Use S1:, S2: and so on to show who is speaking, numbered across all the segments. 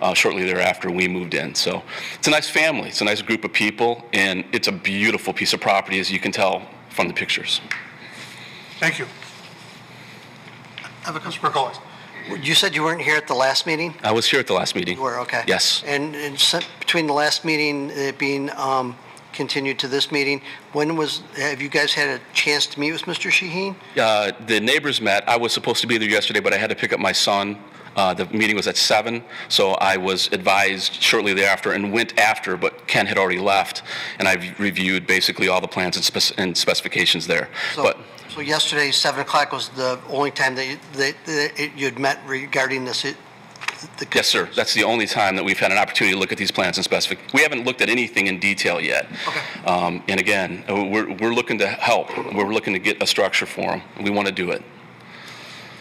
S1: uh, shortly thereafter we moved in. So it's a nice family, it's a nice group of people, and it's a beautiful piece of property, as you can tell from the pictures.
S2: Thank you. Advocate Spurgoli.
S3: You said you weren't here at the last meeting?
S1: I was here at the last meeting.
S3: You were, okay.
S1: Yes.
S3: And and sent- between the last meeting, it being um, continued to this meeting, when was, have you guys had a chance to meet with Mr. Shaheen?
S1: Uh, the neighbors met. I was supposed to be there yesterday, but I had to pick up my son. Uh, the meeting was at seven, so I was advised shortly thereafter and went after, but Ken had already left, and I've reviewed basically all the plans and, spec- and specifications there.
S3: So-
S1: but
S3: So yesterday, 7 o'clock was the only time that you- that- that you'd met regarding this? it- the-
S1: yes, sir, that's the only time that we've had an opportunity to look at these plans and specific. We haven't looked at anything in detail yet.
S3: Okay.
S1: Um, and again, uh, we're, we're looking to help. We're looking to get a structure for them. We want to do it.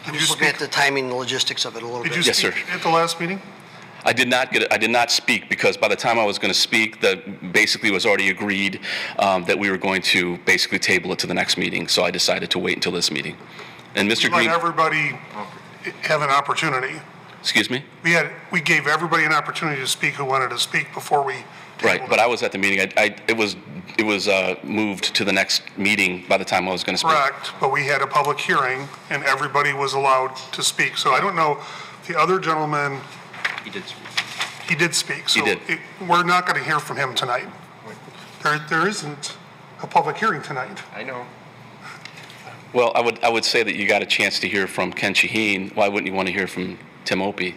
S3: I'm just looking at the timing and logistics of it a little
S2: Did
S3: bit.
S2: you
S1: Yes,
S2: speak
S1: sir.
S2: at the last meeting?
S1: I did not get, I did not speak because by the time I was going to speak, the, basically was already agreed um, that we were going to basically table it to the next meeting, so I decided to wait until this meeting. And Mr.
S2: Let
S1: Green,
S2: everybody have an opportunity.
S1: excuse me?
S2: We had, we gave everybody an opportunity to speak who wanted to speak before we.
S1: Right, but I was at the meeting, I- I, it was, it was uh, moved to the next meeting by the time I was going to speak.
S2: Correct, but we had a public hearing and everybody was allowed to speak. So I don't know, the other gentleman,
S4: He did speak.
S2: he did speak.
S1: He did.
S2: So it- we're not going to hear from him tonight. There, there isn't a public hearing tonight.
S4: I know.
S1: Well, I would, I would say that you got a chance to hear from Ken Shaheen, why wouldn't you want to hear from Tim Opie?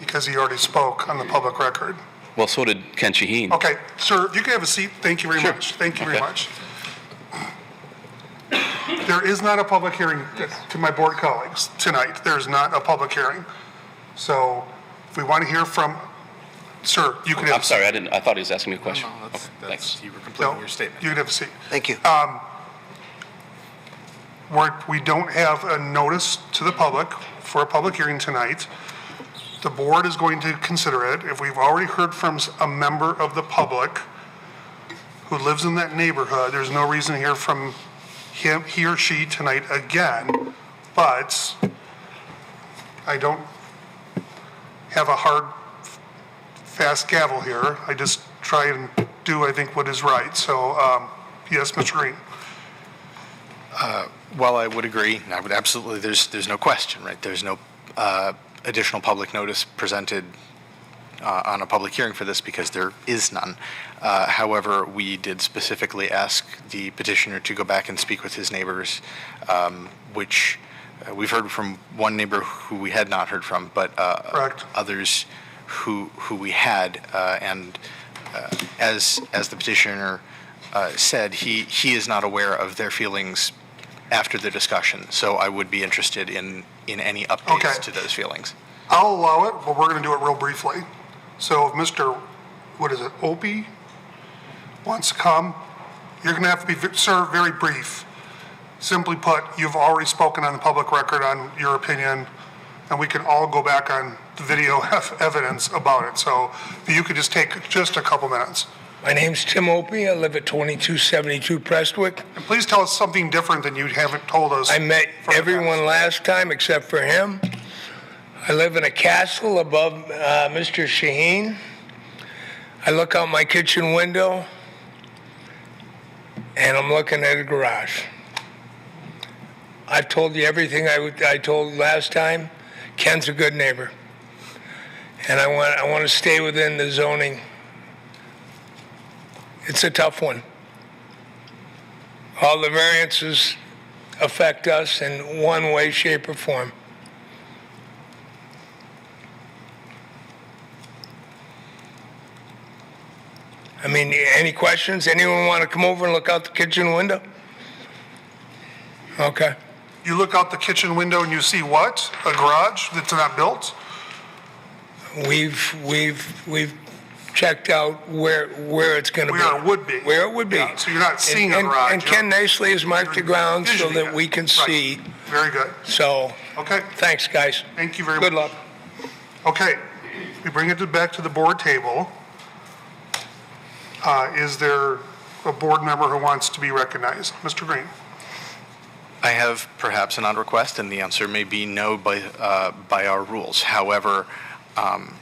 S2: because he already spoke on the public record.
S1: Well, so did Ken Shaheen.
S5: Oh.
S2: Okay, sir, if you can have a seat, thank you very
S1: Sure.
S2: much. Thank you very
S1: Okay.
S2: much. There is not a public hearing to my board colleagues tonight. There is not a public hearing. So if we want to hear from, sir, you can have.
S1: I'm sorry, I didn't, I thought he was asking me a question.
S5: No, that's,
S1: Okay, thanks.
S5: that's, you were
S2: No,
S5: completing your statement.
S2: You can have a seat.
S3: Thank you.
S2: We're, we don't have a notice to the public for a public hearing tonight. The board is going to consider it. If we've already heard from s- a member of the public who lives in that neighborhood, there's no reason to hear from him, he or she tonight again. But I don't have a hard, fast gavel here. I just try and do, I think, what is right. So, um, yes, Mr. Green.
S5: Well, I would agree, and I would absolutely, there's, there's no question, right? There's no uh, additional public notice presented uh, on a public hearing for this because there is none. Uh, However, we did specifically ask the petitioner to go back and speak with his neighbors, um, which uh, we've heard from one neighbor who we had not heard from, but uh,
S2: Correct.
S5: others who, who we had. uh, And uh, as, as the petitioner uh, said, he, he is not aware of their feelings after the discussion. So I would be interested in, in any
S2: Okay.
S5: updates to those feelings.
S2: I'll allow it, but we're going to do it real briefly. So if Mr., what is it, Opie wants to come, you're going to have to be, ve- sir, very brief. Simply put, you've already spoken on the public record on your opinion, and we can all go back on the video ev- evidence about it. So if you could just take just a couple minutes.
S6: My name's Tim Opie. I live at 2272 Prestwick.
S2: And please tell us something different than you haven't told us.
S6: I
S2: for
S6: met
S2: the past.
S6: everyone last time except for him. I live in a castle above uh, Mr. Shaheen. I look out my kitchen window and I'm looking at a garage. I've told you everything I, would- I told last time. Ken's a good neighbor. And I want, I want to stay within the zoning. It's a tough one. All the variances affect us in one way, shape, or form. I mean, any questions? Anyone want to come over and look out the kitchen window? Okay.
S2: You look out the kitchen window and you see what? A garage that's not built?
S6: We've, we've, we've checked out where, where it's going to be.
S2: Where it would be.
S6: Where it would be.
S2: Yeah, so you're not
S6: And-
S2: seeing a
S6: and-
S2: garage,
S6: And
S2: you're-
S6: Ken Nicely has marked the ground so
S2: Visioning
S6: that
S2: it.
S6: we can
S2: Right.
S6: see.
S2: Very good.
S6: So,
S2: Okay,
S6: thanks, guys.
S2: thank you very much.
S6: Good luck.
S2: Okay, we bring it to- back to the board table. Uh, Is there a board member who wants to be recognized? Mr. Green?
S5: I have perhaps an odd request, and the answer may be no by, uh, by our rules. However, um,